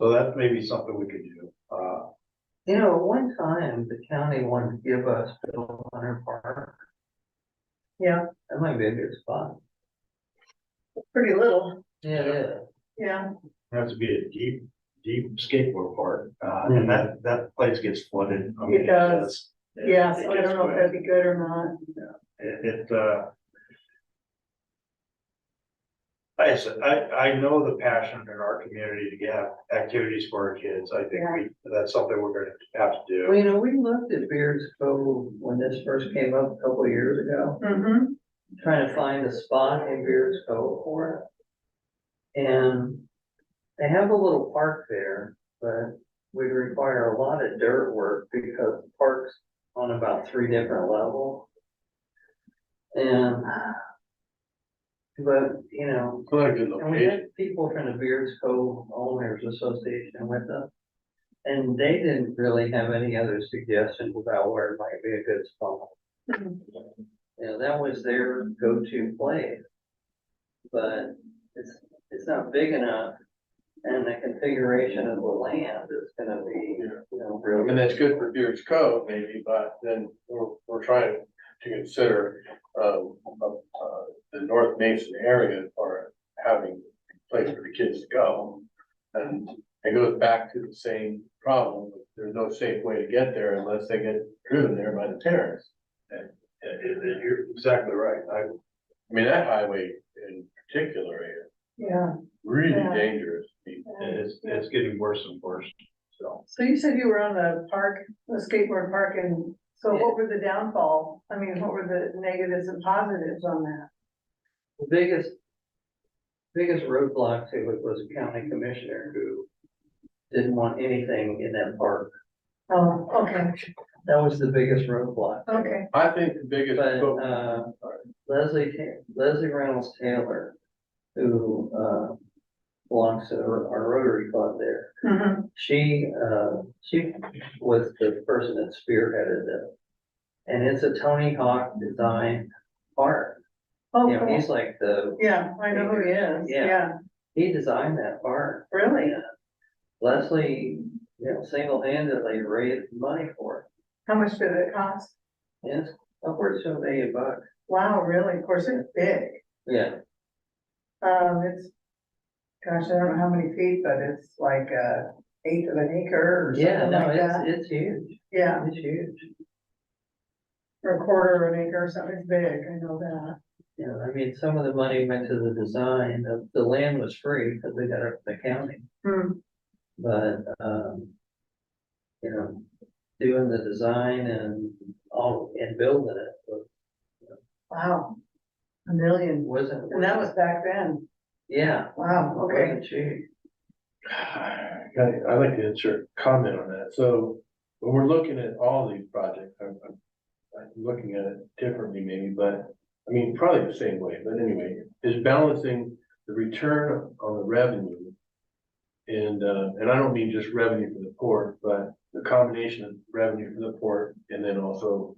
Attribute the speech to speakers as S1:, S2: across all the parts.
S1: So that may be something we could do. Uh,
S2: You know, one time the county wanted to give us Bill Hunter Park.
S3: Yeah.
S2: That might be a good spot.
S3: pretty little,
S2: Yeah, it is.
S3: yeah.
S1: it has to be a deep, deep skateboard park, uh, and that, that place gets flooded. I mean,
S3: It does.
S1: it's- it-
S3: Yeah,
S1: it
S3: so I
S1: gets
S3: don't know if
S1: wet.
S3: that'd be good or not.
S1: It, it, uh. I said, I, I know the passion in our community to have activities for our kids. I think we, that's something we're gonna have to
S2: Well,
S1: do.
S2: you know, we looked at Beards Cove when this first came up a couple of years ago,
S3: Mm-hmm.
S2: trying to find a spot in Beards Cove for it. And they have a little park there, but would require a lot of dirt work because the park's on about three different levels. And but, you know,
S1: What a good
S2: and we had people from the Beards Cove Owners Association with us. And they didn't really have any other suggestions about where it might be a good spot. You know, that was their go-to place. But it's, it's not big enough and the configuration of the land is gonna be, you know,
S4: And
S2: really.
S4: that's good for Deer's Cove maybe, but then we're, we're trying to consider, um, uh, uh, the North Mason area for having a place for the kids to go. And it goes back to the same problem, there's no safe way to get there unless they get driven there by the terrorists.
S1: You're exactly right. I,
S4: I mean, that highway in particular is
S3: Yeah,
S4: really
S3: Yeah.
S4: dangerous.
S1: it's, it's getting worse and worse, so.
S3: so you said you were on the park, the skateboard park, and so what were the downfall? I mean, what were the negatives and positives on that?
S2: The Biggest, biggest roadblock to it was a county commissioner who didn't want anything in that park.
S3: Oh, okay,
S2: That was the biggest roadblock.
S3: okay,
S4: I think the biggest.
S2: But,
S4: focus-
S2: uh, Leslie, Ta- Leslie Reynolds Taylor, who, uh, belongs to our our Rotary Club there.
S3: Mhm.
S2: She, uh, she was the person that spearheaded it. And it's a Tony Hawk designed park. You know,
S3: okay,
S2: he's like the,
S3: Oh, yeah, I know who he is,
S2: Yeah.
S3: yeah,
S2: he designed that park.
S3: really?
S2: Leslie, you know, single-handedly raised money for
S3: How much did it cost?
S2: it. Yes, upwards of a million bucks.
S3: Wow, really, of course, it's big.
S2: Yeah,
S3: Um, it's, gosh, I don't know how many feet, but it's like a eighth of an acre or
S2: yeah,
S3: something
S2: no,
S3: like that.
S2: it's, it's huge.
S3: Yeah,
S2: It's huge.
S3: or a quarter of an acre or something, it's big, I know that.
S2: Yeah, I mean, some of the money went to the design, the, the land was free because they got it from the county,
S3: Hmm,
S2: but, um. You know, doing the design and all, and building it was-
S3: wow. A million,
S2: wasn't.
S3: and that was back then,
S2: Yeah.
S3: wow, okay.
S2: wasn't cheap.
S4: Okay, I'd like to insert a comment on that. So when we're looking at all these projects, I'm, I'm, I'm looking at it differently maybe, but I mean, probably the same way, but anyway, is balancing the return on the revenue. And, uh, and I don't mean just revenue for the port, but the combination of revenue for the port and then also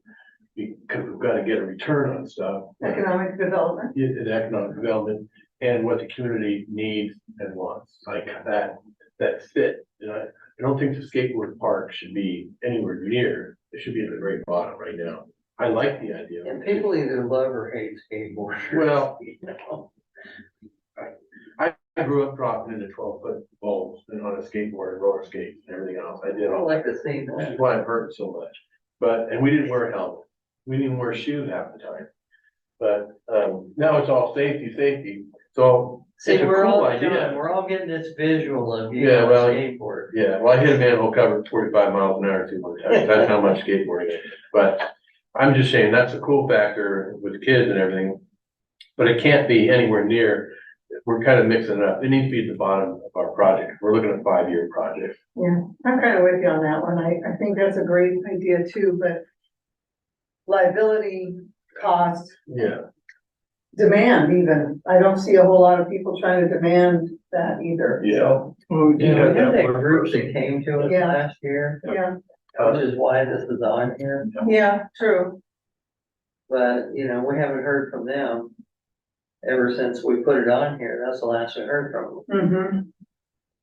S4: because we've got to get a return on stuff.
S3: Economic development,
S4: in, in economic development and what the community needs and wants, like that, that fit. You know, I don't think the skateboard park should be anywhere near, it should be at the very bottom right now. I like the idea.
S2: And people either love or hate skateboarders.
S4: Well-
S2: you know.
S4: I grew up dropping into twelve foot bowls and on a skateboard and roller skates and everything else. I
S2: I
S4: did all
S2: don't like to see
S4: Which
S2: that.
S4: is why it hurt so much. But, and we didn't wear helmets. We didn't wear shoes half the time. But, um, now it's all safety, safety. So it's
S2: See,
S4: a
S2: we're
S4: cool
S2: all,
S4: idea.
S2: John, we're all getting this visual of you
S4: Yeah,
S2: on a
S4: well,
S2: skateboard.
S4: Yeah, well, I hit a manhole cover at forty-five miles an hour too much. That's how much skateboarding is. But I'm just saying, that's a cool factor with kids and everything. But it can't be anywhere near, we're kind of mixing it up. It needs to be at the bottom of our project. We're looking at five-year projects.
S3: yeah, I'm kind of with you on that one, I, I think that's a great idea too, but liability, cost,
S4: Yeah.
S3: demand even, I don't see a whole lot of people trying to demand that either.
S4: Yeah.
S2: You know,
S1: Yeah,
S2: remember
S1: yeah,
S2: that
S1: we're-
S2: group that came to us
S3: Yeah.
S2: last year,
S3: Yeah,
S2: which is why this is on here?
S3: Yeah, true.
S2: But, you know, we haven't heard from them ever since we put it on here. That's the last we heard from them.
S3: Mm-hmm.